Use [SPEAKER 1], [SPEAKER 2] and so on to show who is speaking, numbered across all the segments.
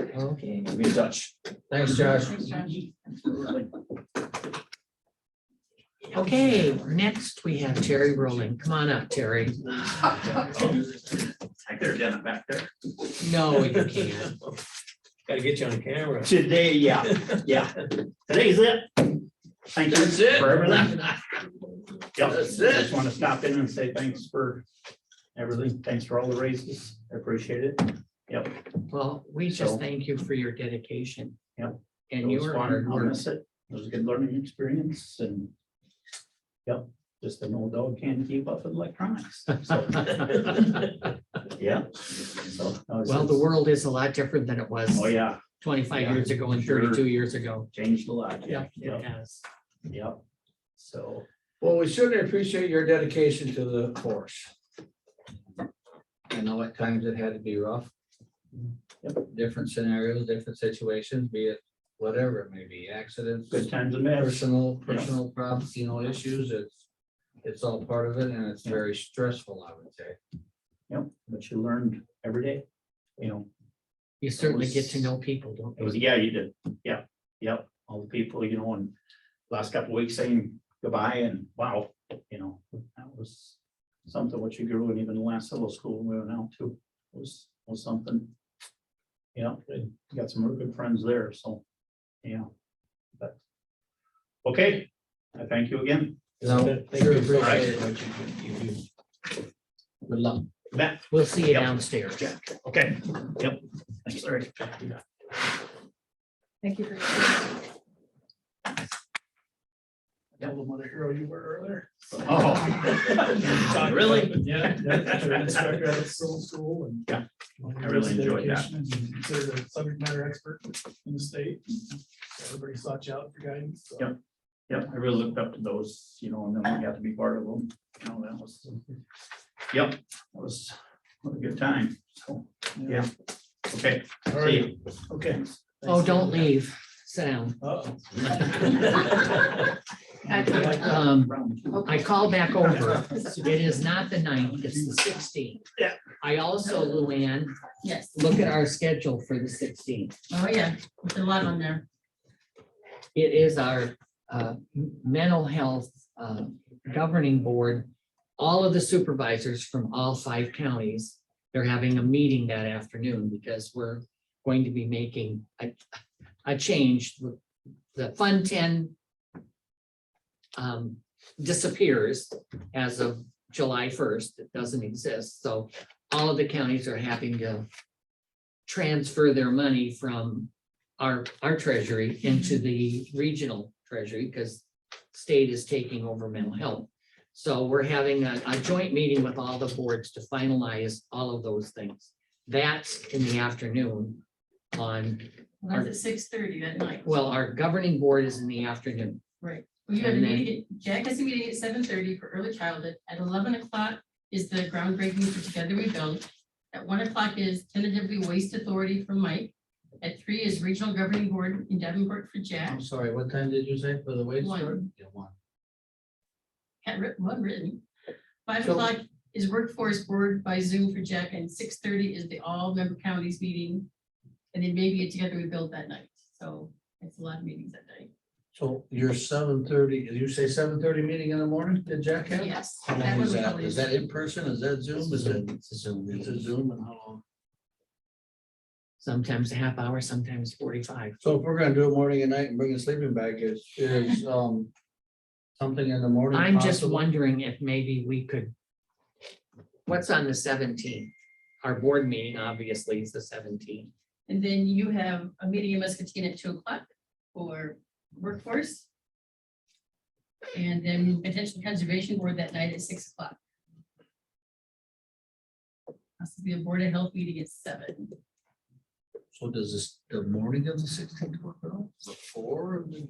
[SPEAKER 1] Okay,
[SPEAKER 2] We'll be in touch.
[SPEAKER 3] Thanks, Josh.
[SPEAKER 1] okay, next we have Terry Rowland. Come on up, Terry.
[SPEAKER 2] They're down back there.
[SPEAKER 1] No, you can't.
[SPEAKER 3] Gotta get you on camera.
[SPEAKER 2] Today, yeah, yeah. Today's it. Thank you
[SPEAKER 3] That's it.
[SPEAKER 2] for everything. Yep.
[SPEAKER 3] That's it.
[SPEAKER 2] Just want to stop in and say thanks for everything. Thanks for all the raises. I appreciate it.
[SPEAKER 1] Well, we just thank you for your dedication.
[SPEAKER 2] Yep.
[SPEAKER 1] And
[SPEAKER 2] It was
[SPEAKER 1] your
[SPEAKER 2] fun.
[SPEAKER 1] hard
[SPEAKER 2] I'll
[SPEAKER 1] work.
[SPEAKER 2] miss it. It was a good learning experience and yep, just an old dog can't keep up with electronics. So, Yeah. So, no, it's-
[SPEAKER 1] Well, the world is a lot different than it was
[SPEAKER 2] Oh, yeah,
[SPEAKER 1] twenty-five
[SPEAKER 2] yeah,
[SPEAKER 1] years ago and
[SPEAKER 2] sure.
[SPEAKER 1] thirty-two years ago.
[SPEAKER 2] changed a lot.
[SPEAKER 1] Yep, it
[SPEAKER 2] Yep,
[SPEAKER 1] has.
[SPEAKER 2] yep. So,
[SPEAKER 3] Well, we certainly appreciate your dedication to the course. I know at times it had to be rough. Different scenarios, different situations, be it whatever it may be, accidents,
[SPEAKER 2] good times and matters.
[SPEAKER 3] personal, personal problems, you know, issues, it's. It's all part of it and it's very stressful, I would say.
[SPEAKER 2] Yep, but you learned every day, you know,
[SPEAKER 1] You certainly
[SPEAKER 2] was-
[SPEAKER 1] get to know people,
[SPEAKER 2] it
[SPEAKER 1] don't
[SPEAKER 2] was,
[SPEAKER 1] you?
[SPEAKER 2] yeah, you did. Yeah, yep, all the people, you know, and last couple weeks saying goodbye and wow, you know, that was something what you grew and even the last little school we went out to was, was something. You know, you got some real good friends there, so, yeah. But, okay, I thank you again.
[SPEAKER 3] No,
[SPEAKER 2] Thank
[SPEAKER 3] sure
[SPEAKER 2] you.
[SPEAKER 3] appreciate what you do. you do. Good luck.
[SPEAKER 2] Matt,
[SPEAKER 1] We'll see you
[SPEAKER 2] Yep.
[SPEAKER 1] downstairs.
[SPEAKER 2] okay, yep, thanks, Larry.
[SPEAKER 4] Thank you for your.
[SPEAKER 2] Devil mother hero you were earlier.
[SPEAKER 5] Oh.
[SPEAKER 2] Really?
[SPEAKER 5] Yeah. that's true. That's right. I was still in school and-
[SPEAKER 2] Yeah, I really enjoyed that.
[SPEAKER 5] And Considered a subject matter expert in the state. Everybody sought you out for guidance. so.
[SPEAKER 2] Yep. Yeah, I really looked up to those, you know, and then we got to be part of them. You know, that was, yep, that was what a good time. So, yeah, okay.
[SPEAKER 5] All
[SPEAKER 2] see
[SPEAKER 5] right.
[SPEAKER 2] you. Okay.
[SPEAKER 1] Oh, don't leave. Sit down.
[SPEAKER 5] Uh-oh.
[SPEAKER 1] Um,
[SPEAKER 2] Round two.
[SPEAKER 1] I call back over. It is not the ninth, it's the sixteenth.
[SPEAKER 2] Yeah.
[SPEAKER 1] I also, Luann,
[SPEAKER 4] Yes,
[SPEAKER 1] look at our schedule for the sixteenth.
[SPEAKER 4] oh yeah, there's a lot on there.
[SPEAKER 1] It is our uh, m- mental health uh, governing board. All of the supervisors from all five counties, they're having a meeting that afternoon because we're going to be making a, a change. The Fund Ten um, disappears as of July first. It doesn't exist. So all of the counties are having to transfer their money from our, our treasury
[SPEAKER 3] Mm-hmm.
[SPEAKER 1] into the regional treasury because state is taking over mental
[SPEAKER 3] Mm-hmm.
[SPEAKER 1] health. So we're having a, a joint meeting with all the boards to finalize all of those things. That's in the afternoon on,
[SPEAKER 4] Well, That's at six thirty that night.
[SPEAKER 1] well, our governing board is in the afternoon.
[SPEAKER 4] We have a
[SPEAKER 1] and then-
[SPEAKER 4] meeting, at- Jack has a meeting at seven thirty for early childhood. At eleven o'clock is the groundbreaking for Together We Build. At one o'clock is tentatively Waste Authority for Mike. At three is Regional Governing Board in Davenport for Jack.
[SPEAKER 3] I'm sorry, what time did you say for the wait?
[SPEAKER 4] One.
[SPEAKER 3] start? Yeah, one.
[SPEAKER 4] Had writ- well written. Five
[SPEAKER 3] So-
[SPEAKER 4] o'clock is Workforce Board by Zoom for Jack, and six thirty is the all member counties meeting. And then maybe a Together We Build that night. So it's a lot of meetings that night.
[SPEAKER 3] So your seven thirty, did you say seven thirty meeting in the morning, did Jack have?
[SPEAKER 4] Yes.
[SPEAKER 3] How
[SPEAKER 4] that
[SPEAKER 3] long is
[SPEAKER 4] would
[SPEAKER 3] that?
[SPEAKER 4] probably-
[SPEAKER 3] Is that in person? Is that Zoom? Is it, is it Zoom and how long?
[SPEAKER 1] Sometimes a half hour, sometimes forty-five.
[SPEAKER 3] So if we're gonna do it morning and night and bring a sleeping bag, is, is, um, something in the morning?
[SPEAKER 1] I'm just
[SPEAKER 3] possible?
[SPEAKER 1] wondering if maybe we could. What's on the seventeenth? Our board meeting obviously is the seventeenth.
[SPEAKER 4] And then you have a meeting in Muscatine at two o'clock for workforce. And then potential conservation board that night at six o'clock. Possibly a board of health meeting at seven.
[SPEAKER 3] So does this, the morning of the sixteenth work at all? Before we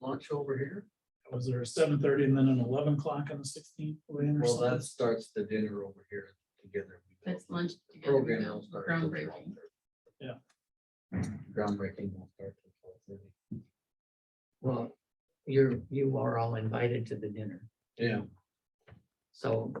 [SPEAKER 3] launch over here?
[SPEAKER 5] Was there a seven thirty and then an eleven o'clock on the sixteenth?
[SPEAKER 3] Well, that starts the dinner over here together.
[SPEAKER 4] That's lunch. together.
[SPEAKER 3] Program will start. till
[SPEAKER 4] Groundbreaking.
[SPEAKER 3] 12:30. Groundbreaking will start. till 12:30.
[SPEAKER 1] Well, you're, you are all invited to the dinner,
[SPEAKER 3] Yeah,
[SPEAKER 1] so